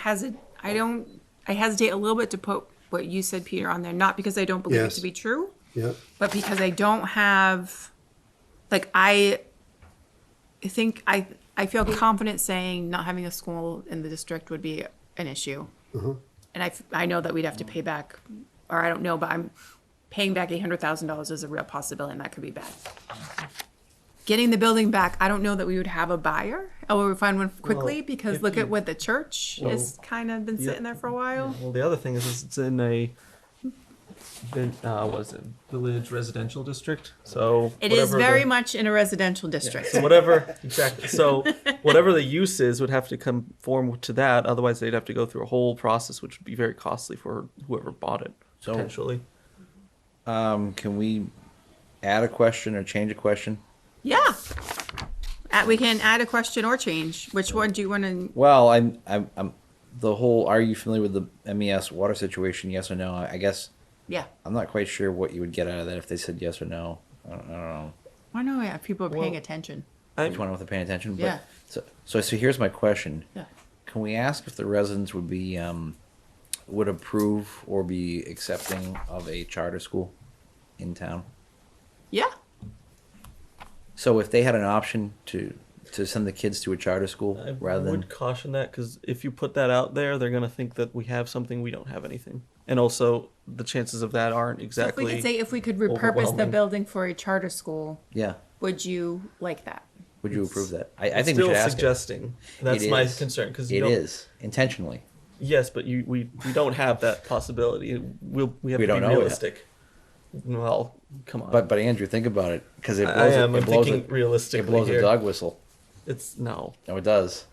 hesitate. I don't. I hesitate a little bit to put what you said, Peter, on there. Not because I don't believe Yes. it to be true, Yeah, but because I don't have. Like I. I think I. I feel confident saying not having a school in the district would be an issue. Mm-hmm. And I, f- I know that we'd have to pay back, or I don't know, but I'm paying back eight hundred thousand dollars is a real possibility, and that could be bad. Getting the building back, I don't know that we would have a buyer, or we would find one quickly, Well, because if look at you- what the church has kind of been yeah. sitting there for a while. Well, the other thing is, is it's in a, vin- uh, what is it, village residential district, so. It is whatever very the- much in a residential Yeah, district. So whatever, exactly, so whatever the use is would have to conform to that, otherwise they'd have to go through a whole process, which would be very costly for whoever bought it, So- potentially. Um, can we add a question or change a question? Yeah. At, we can add a question or change. Which one do you want to? Well, I'm, I'm, I'm, the whole, are you familiar with the MES water situation? Yes or no? I I guess, Yeah. I'm not quite sure what you would get out of that if they said yes or no. I don't, I don't know. I don't know if people are paying Well- attention. I'm- Which one with the paying attention? But, Yeah. So, so, so here's my question. Yeah. Can we ask if the residents would be, um, would approve or be accepting of a charter school in town? Yeah. So if they had an option to, to send the kids to a charter school I rather than. would caution that because if you put that out there, they're gonna think that we have something we don't have anything, and also the chances of that aren't So if we exactly. could say if we could repurpose the overwhelming. building for a charter school, Yeah. would you like that? Would you approve that? I, I It's think we still should ask. it. suggesting. That's It my is. concern because It is intentionally. Yes, but you we, we don't have that possibility. We'll, we have We to don't be know yet. realistic. Well, come on. But but Andrew, think about it because it I- blows. I am. it, I'm it blows thinking a, realistically it blows here. a dog whistle. It's no. No, it does.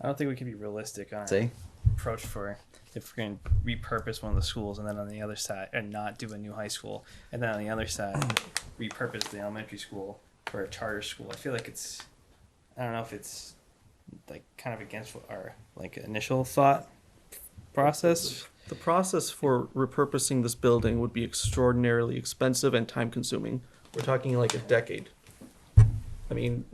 I don't think we can be realistic on our See? approach for if we're going to repurpose one of the schools and then on the other side and not do a new high school and then on the other side repurpose the elementary school for a charter school. I feel like it's I don't know if it's like kind of against what our like initial thought process. The process for repurposing this building would be extraordinarily expensive and time consuming. We're talking like a decade. I mean,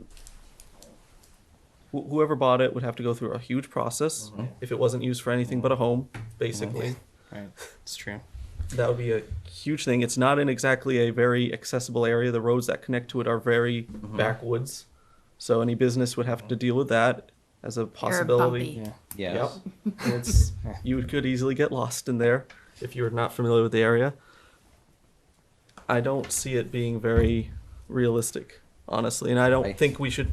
wh- whoever bought it would have to go through a huge process Mm-hmm. if it wasn't used for anything but a home, basically. Right. It's true. That would be a huge thing. It's not in exactly a very accessible area. The roads that connect to it are very backwoods. So any business would have to deal with that as a possibility. bumpy. Yeah. Yes. Yep. And it's, you could easily get lost in there if you're not familiar with the area. I don't see it being very realistic, honestly, and I don't I- think we should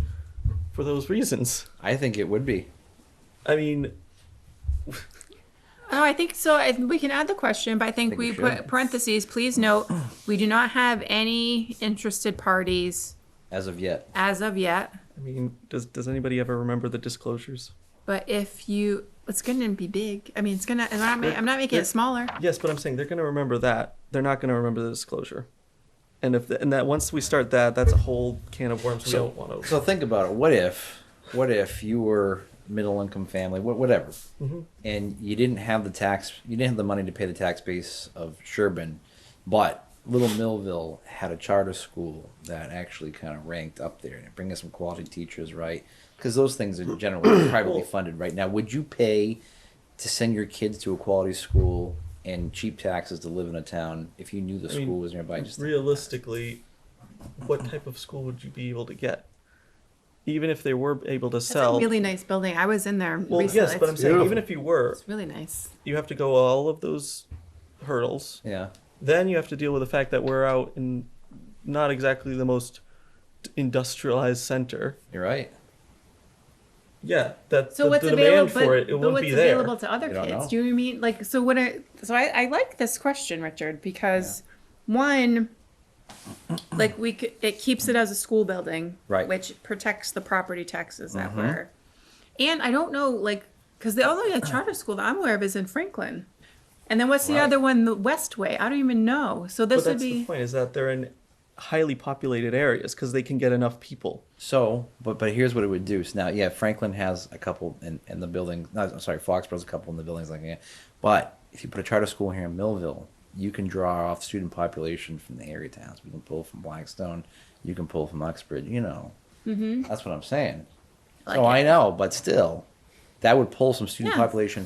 for those reasons. I think it would be. I mean, Oh, I think so. I, we can add the question, but I think, Think we we put should. parentheses. Please note, we do not have any interested parties As of yet, as of yet. I mean, does does anybody ever remember the disclosures? But if you, it's going to be big. I mean, it's going to. I'm not, ma- I'm not making it smaller. Yes, but I'm saying they're going to remember that. They're not going to remember the disclosure. And if the, and that once we start that, that's a whole can of worms we So- don't want to. so think about it. What if, what if you were middle income family, wha- whatever, Mm-hmm. and you didn't have the tax, you didn't have the money to pay the tax base of Sherbin, but Little Millville had a charter school that actually kind of ranked up there and bringing some quality teachers, right? Because those things are generally privately funded right now. Would you pay to send your kids to a quality school and cheap taxes to live in a town if you knew the I mean, school was nearby? Just Realistically, what type of school would you be able to get? Even if they were able to It's sell. a really nice building. I was in there well, recently. yes, but I'm it's, saying Beautiful. even if you were, it's really nice. you have to go all of those hurdles. yeah. Then you have to deal with the fact that we're out in not exactly the most industrialized center. You're right. Yeah, that's So the, what's the available? demand But, for it. It but wouldn't what's be there. available to other You don't kids? know. Do you know what I mean like so? What? I, so I, I like this question, Richard, because one, like we could, it keeps it as a school building, Right. Which protects the property taxes Mm-hmm. that were, and I don't know like because the only other charter school that I'm aware of is in Franklin, and then what's the Right. other one, the Westway? I don't even know. So this but would that's the be point is that they're in highly populated areas because they can get enough people. So, but but here's what it would do. So now, yeah, Franklin has a couple in, in the building. No, I'm sorry, Foxborough's a couple in the buildings like that. But if you put a charter school here in Millville, you can draw off student population from the area towns. You can pull from Blackstone, you can pull from Uxbridge. You know, mm-hmm. that's what I'm saying. I oh, like I know, but still, that would pull some student Yeah. population